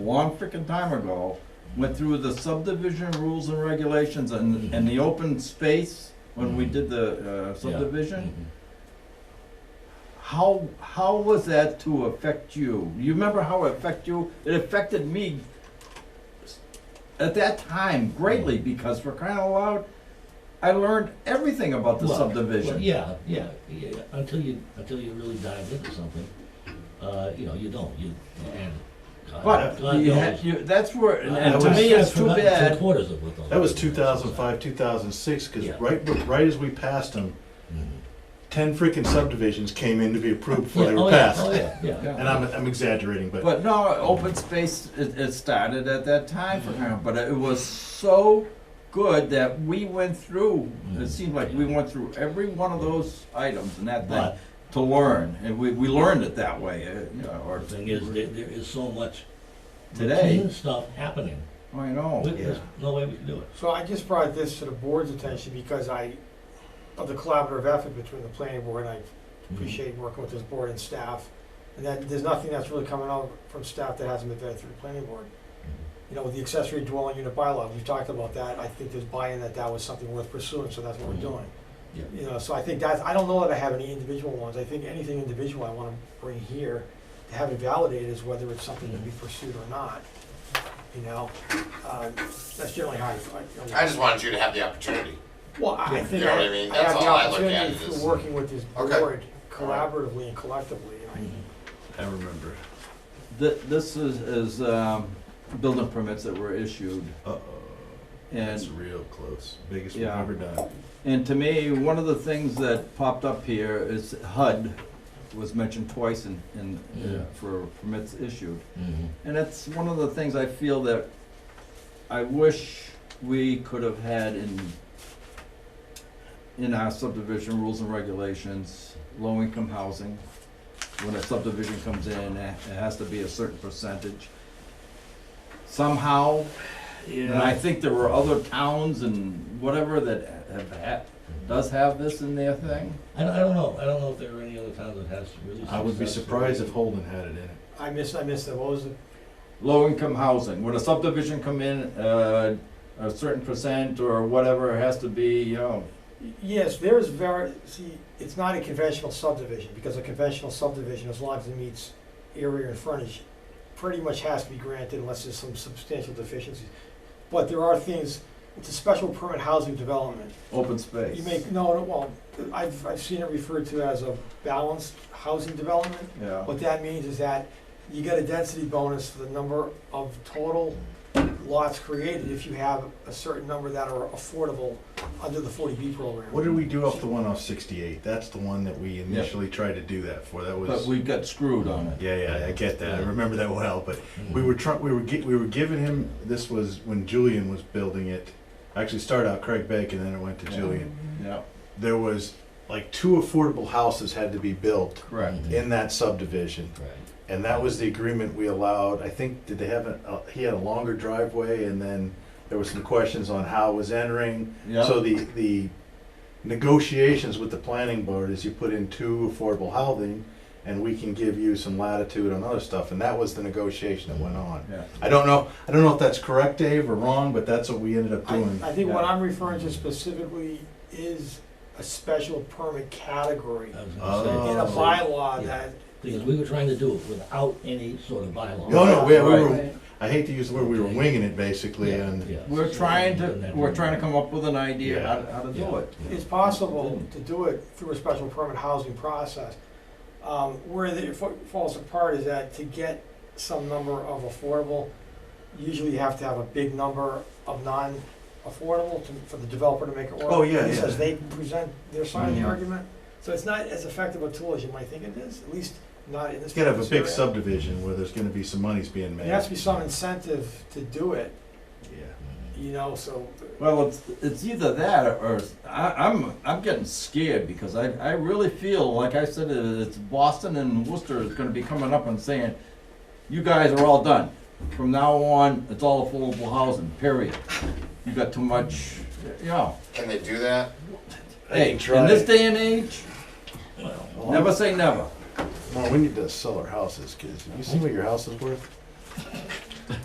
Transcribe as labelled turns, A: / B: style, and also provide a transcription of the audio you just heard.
A: long frickin' time ago, went through the subdivision rules and regulations and, and the open space when we did the uh, subdivision.
B: Mm-hmm.
A: How, how was that to affect you? You remember how it affected you? It affected me s- at that time greatly because for crying out loud, I learned everything about the
B: Well, well,
A: subdivision.
B: Yeah, yeah, yeah, until you, until you really dive into something, uh, you know, you don't, you, and. God-
A: But
B: God
A: you
B: knows.
A: had, you, that's where, and-
B: I-
A: and
B: I
A: to
B: was-
A: me,
B: I've
A: it's too
B: forgotten three
A: bad.
B: Quarters of what those.
C: That was 2005, 2006, because
B: Yeah.
C: right, right as we passed them,
B: Mhm.
C: 10 freaking subdivisions came in to be approved
B: Yeah,
C: before they
B: oh,
C: were
B: yeah,
C: passed.
B: Oh, yeah, yeah.
C: And I'm, I'm exaggerating, but
A: But no, open space, it, it started at that time
B: Mm-hmm.
A: for him, but it was so good that we went through,
B: Mm-hmm.
A: it seemed like we went through every one of those items and that thing
B: But
A: to learn, and we, we learned it that way, uh, you know, or.
B: the thing is, there, there is so much
A: Today. Oh,
B: routine stuff happening.
A: I know.
B: We- There's
C: yeah.
B: no way we can do it.
D: So I just brought this to the board's attention because I, of the collaborative effort between the planning board, I
B: Mm-hmm.
D: appreciate working with this board and staff. And that, there's nothing that's really coming out from staff that hasn't been vetted through the planning board. You know, with the accessory dwelling unit bylaw, we talked about that, I think there's buy-in that that was something worth pursuing, so that's what we're doing.
B: Mm-hmm. Yeah.
D: You know, so I think that's, I don't know that I have any individual ones, I think anything individual I wanna bring here to have it validated is whether it's something to be pursued or not, you know? Uh, That's generally how I.
E: I just wanted you to have the opportunity.
D: Well, I think
E: You know
D: I
E: what I mean?
D: I
E: That's
D: have the
E: all I look at
D: opportunity
E: is
D: through
E: this.
D: working with this
E: Okay.
D: board collaboratively and collectively, and
B: Mm-hmm.
C: I remember.
A: Th- this is, is, um, building permits that were issued,
C: Uh-oh. That's
A: and,
C: real close. Biggest we've
A: Yeah.
C: ever done.
A: and to me, one of the things that popped up here is HUD was mentioned twice in, in, uh,
B: Yeah.
A: for permits issued.
B: Mhm.
A: And that's one of the things I feel that I wish we could have had in, in our subdivision rules and regulations, low-income housing. When a subdivision comes in, it it has to be a certain percentage. Somehow, and I think there were other towns and whatever that have had, does have this in their thing.
B: I don't, I don't know, I don't know if there are any other towns that has really.
C: I would be
B: successful-
C: surprised if Holden had it in it.
D: I miss, I miss that, what was it?
A: Low-income housing, when a subdivision come in, uh, a certain percent or whatever, it has to be, you know,
D: Yes, there's very, see, it's not a conventional subdivision, because a conventional subdivision, as long as it meets area and frontage, pretty much has to be granted unless there's some substantial deficiencies. But there are things, it's a special permit housing development.
A: open space.
D: You make, no, no, well, I've, I've seen it referred to as a balanced housing development.
A: Yeah.
D: What that means is that you get a density bonus for the number of total lots created if you have a certain number that are affordable under the forty B program.
C: What did we do off the one off 68? That's the one that we initially tried to do that for. That
A: But
C: was.
A: we got screwed on it.
C: Yeah, yeah, I get that. I remember that well, but
A: Mm-hmm.
B: Mhm.
C: We were trying. We were gi- we were giving him. This was when Julian was building it. Actually, started out Craig Bacon, then it went to
A: Yeah.
C: Julian.
A: Yeah,
C: There was like two affordable houses had to be built
A: correct.
B: Mm.
C: in that subdivision,
B: Mm-hmm. Right.
C: and that was the agreement we allowed. I think did they have a? Uh, he had a longer driveway, and then there was some questions on how it was entering.
A: Yeah,
C: So the the negotiations with the planning board is you put in two affordable housing. And we can give you some latitude on other stuff, and that was the negotiation that went on.
A: yeah.
C: I don't know, I don't know if that's correct, Dave, or wrong, but that's what we ended up
D: I,
C: doing.
D: I think what I'm referring to specifically is a special permit category
B: I was gonna say.
C: Oh.
D: in a bylaw that,
B: Because we were trying to do it without any sort of bylaw.
C: No, no, we, we were,
A: Right.
C: I hate to use the word, we were winging it basically, and,
A: We're trying to, we're trying to come up with an idea how, to- how to do
B: Yeah.
A: it.
D: it's possible to do it through a special permit housing process. Um, where it fa- falls apart is that to get some number of affordable, usually you have to have a big number of non-affordable to, for the developer to make it work.
C: Oh, yeah,
D: At least
C: yeah.
D: As they present their side of the
A: Mhm.
D: argument, so it's not as effective a tool as you might think it is, at least not in this.
C: it's gotta have a big
D: area.
C: subdivision where there's gonna be some monies being made.
D: There has to be some incentive to do it,
C: Yeah.
D: you know, so.
A: Well, it's, it's either that or I, I'm, I'm getting scared because I, I really feel, like I said, it's Boston and Worcester is gonna be coming up and saying, you guys are all done. From now on, it's all affordable housing, period. You got too much, you know.
E: Can they do that?
A: Hey, in this day and age, never say never.
C: Well, we need to sell our houses, kids, have you seen what your house is worth?